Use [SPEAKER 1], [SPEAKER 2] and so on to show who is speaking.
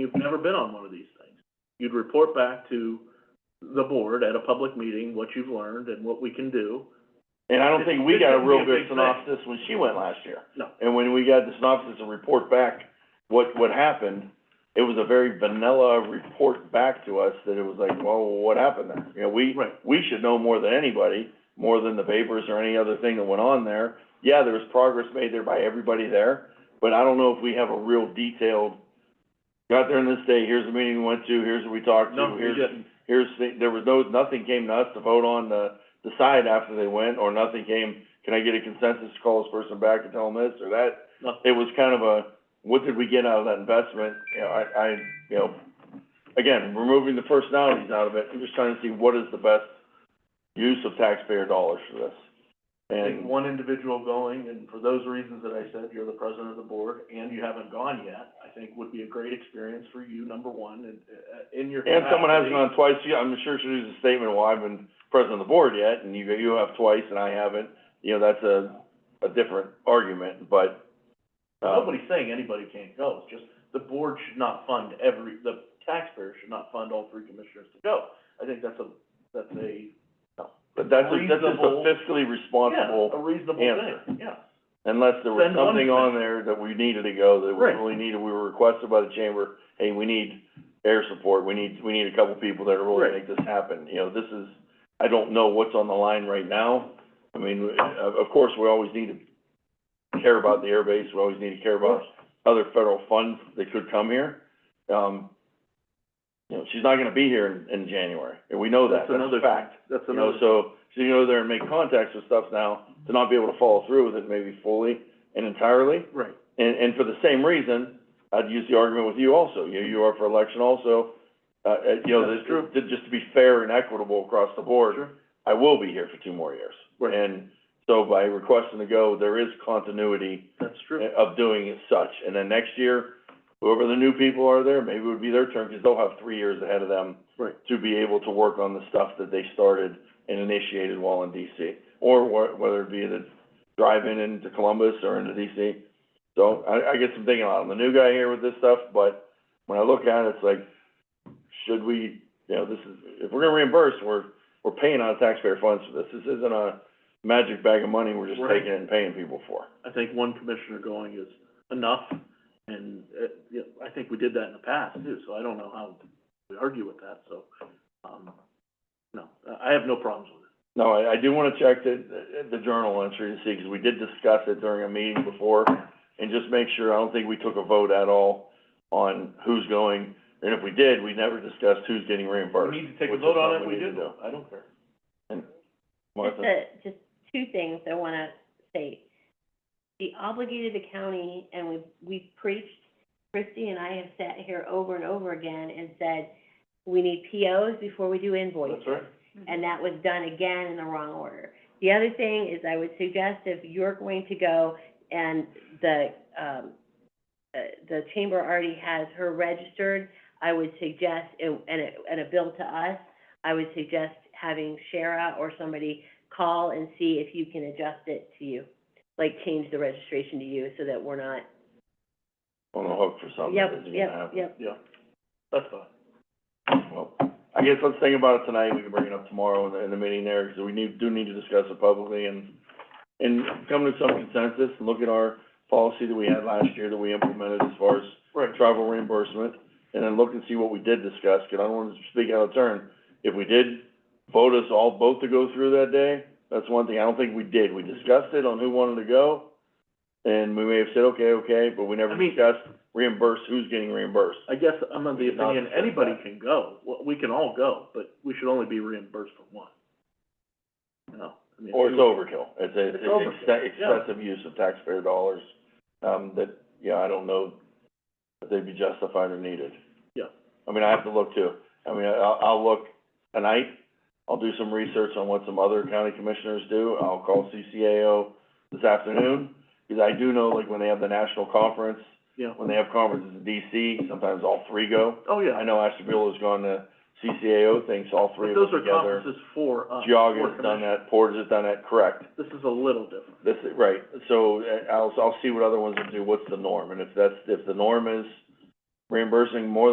[SPEAKER 1] You've never been on one of these things. You'd report back to the board at a public meeting what you've learned and what we can do.
[SPEAKER 2] And I don't think we got a real good
[SPEAKER 1] This would be a big
[SPEAKER 2] synopsis when she went last year.
[SPEAKER 1] No.
[SPEAKER 2] And when we got the synopsis and report back what, what happened, it was a very vanilla report back to us that it was like, well, what happened there? You know, we,
[SPEAKER 1] Right.
[SPEAKER 2] we should know more than anybody, more than the papers or any other thing that went on there. Yeah, there was progress made there by everybody there, but I don't know if we have a real detailed, got there on this day, here's the meeting we went to, here's what we talked
[SPEAKER 1] No,
[SPEAKER 2] to,
[SPEAKER 1] we
[SPEAKER 2] here's
[SPEAKER 1] didn't.
[SPEAKER 2] here's, the- there was no, nothing came to us to vote on to decide after they went, or nothing came, can I get a consensus to call this person back and tell them this or that?
[SPEAKER 1] Nothing.
[SPEAKER 2] It was kind of a, what did we get out of that investment? You know, I, I, you know, again, removing the personalities out of it, I'm just trying to see what is the best use of taxpayer dollars for this.
[SPEAKER 1] I think
[SPEAKER 2] And,
[SPEAKER 1] one individual going, and for those reasons that I said, you're the president of the board, and you haven't gone yet, I think would be a great experience for you, number one, and, uh, in your
[SPEAKER 2] and someone hasn't
[SPEAKER 1] capacity.
[SPEAKER 2] gone twice, yeah, I'm sure she'll use a statement, well, I've been president of the board yet, and you, you have twice and I haven't. You know, that's a, a different argument, but, um,
[SPEAKER 1] Nobody's saying anybody can't go, it's just the board should not fund every, the taxpayer should not fund all three commissioners to go. I think that's a, that's a,
[SPEAKER 2] But that's, a- that's just a
[SPEAKER 1] Reasonable-
[SPEAKER 2] fiscally
[SPEAKER 1] yeah,
[SPEAKER 2] responsible,
[SPEAKER 1] a reasonable
[SPEAKER 2] answer.
[SPEAKER 1] thing, yeah.
[SPEAKER 2] unless there was
[SPEAKER 1] Send one
[SPEAKER 2] something on
[SPEAKER 1] commissioner.
[SPEAKER 2] there that we needed to go, that we
[SPEAKER 1] Right.
[SPEAKER 2] really needed, we were requested by the chamber, hey, we need air support, we need, we need a couple people that are really
[SPEAKER 1] Right.
[SPEAKER 2] make this happen, you know, this is, I don't know what's on the line right now. I mean, of, of course, we always need to care about the airbase, we always need to care about other federal funds that could come here. Um, you know, she's not gonna be here in, in January, and we know that,
[SPEAKER 1] That's
[SPEAKER 2] that's
[SPEAKER 1] another
[SPEAKER 2] a fact.
[SPEAKER 1] That's
[SPEAKER 2] You know,
[SPEAKER 1] another,
[SPEAKER 2] so, so you go there and make contacts with stuff now, to not be able to follow through with it maybe fully and entirely.
[SPEAKER 1] right,
[SPEAKER 2] And, and for the same reason, I'd use the argument with you also, you, you are for election also. Uh, uh, you know,
[SPEAKER 1] That's
[SPEAKER 2] this group, to- just to be fair and equitable across the board,
[SPEAKER 1] Sure.
[SPEAKER 2] I will be here for two more years.
[SPEAKER 1] Right.
[SPEAKER 2] And so by requesting to go, there is continuity
[SPEAKER 1] that's true.
[SPEAKER 2] of doing it such. And then next year, whoever the new people are there, maybe it would be their turn, because they'll have three years ahead of them
[SPEAKER 1] Right.
[SPEAKER 2] to be able to work on the stuff that they started and initiated while in DC, or wh- whether it be the drive-in into Columbus or into DC. So I, I get some thinking on, it. I'm the new guy here with this stuff, but when I look at it, it's like, should we, you know, this is, if we're gonna reimburse, we're, we're paying out of taxpayer funds for this. This isn't a magic bag of money we're just
[SPEAKER 1] Right.
[SPEAKER 2] taking and paying people for.
[SPEAKER 1] I think one commissioner going is enough, and, uh, you know, I think we did that in the past too, so I don't know how we argue with that, so, um, no, I- I have no problems with it.
[SPEAKER 2] No, I, I do wanna check the, the journal entry to see, 'cause we did discuss it during a meeting before, and just make sure, I don't think we took a vote at all on who's going, and if we did, we never discussed who's getting reimbursed. which is something need to do.
[SPEAKER 1] I don't care.
[SPEAKER 3] Just
[SPEAKER 2] Martha?
[SPEAKER 3] a, just two things I wanna state. The obligated the county, and we've, we've preached, Christie and I have sat here over and over again and said, we need POs before we do invoices.
[SPEAKER 1] That's right.
[SPEAKER 3] And that was done again in the wrong order. The other thing is I would suggest if you're going to go and the, um, uh, the chamber already has her registered, I would suggest, and, and a, and a bill to us, I would suggest having Shara or somebody call and see if you can adjust it to you. Like change the registration to you so that we're not,
[SPEAKER 2] On the hook for something
[SPEAKER 3] yep,
[SPEAKER 2] that isn't gonna
[SPEAKER 3] yep,
[SPEAKER 2] happen.
[SPEAKER 3] yep.
[SPEAKER 1] Yeah, that's fine.
[SPEAKER 2] Well, I guess let's think about it tonight, we can bring it up tomorrow in the, in the meeting there, because we need, do need to discuss it publicly and, and come to some consensus, and look at our policy that we had last year that we implemented as far as
[SPEAKER 1] Right.
[SPEAKER 2] travel reimbursement, and then look and see what we did discuss, 'cause I don't wanna speak out of turn. If we did vote us all both to go through that day, that's one thing I don't think we did. We discussed it on who wanted to go, and we may have said, okay, okay, but we never
[SPEAKER 1] I mean-
[SPEAKER 2] discussed reimburse, who's getting reimbursed.
[SPEAKER 1] I guess I'm of the
[SPEAKER 2] We did not
[SPEAKER 1] opinion,
[SPEAKER 2] discuss
[SPEAKER 1] anybody
[SPEAKER 2] that.
[SPEAKER 1] can go, Well, we can all go, but we should only be reimbursed for one. No, I mean.
[SPEAKER 2] Or it's overkill. It's a,
[SPEAKER 1] It's
[SPEAKER 2] it's
[SPEAKER 1] overkill,
[SPEAKER 2] exce-
[SPEAKER 1] yeah.
[SPEAKER 2] excessive use of taxpayer dollars, um, that, yeah, I don't know that they'd be justified or needed.
[SPEAKER 1] Yeah.
[SPEAKER 2] I mean, I have to look too. I mean, I- I'll, I'll look tonight. I'll do some research on what some other county commissioners do. I'll call CCAO this afternoon, because I do know, like, when they have the national conference,
[SPEAKER 1] Yeah,
[SPEAKER 2] when they have conferences in DC, sometimes all three go.
[SPEAKER 1] oh, yeah.
[SPEAKER 2] I know Ashtabula's gone to CCAO things, all three
[SPEAKER 1] But
[SPEAKER 2] of them
[SPEAKER 1] those are
[SPEAKER 2] together.
[SPEAKER 1] conferences for us, for
[SPEAKER 2] Geogga's done
[SPEAKER 1] commission.
[SPEAKER 2] that, Porter's done that, correct.
[SPEAKER 1] This is a little different.
[SPEAKER 2] This, is- right, so uh, I'll, I'll see what other ones do, what's the norm, and if that's, if the norm is reimbursing more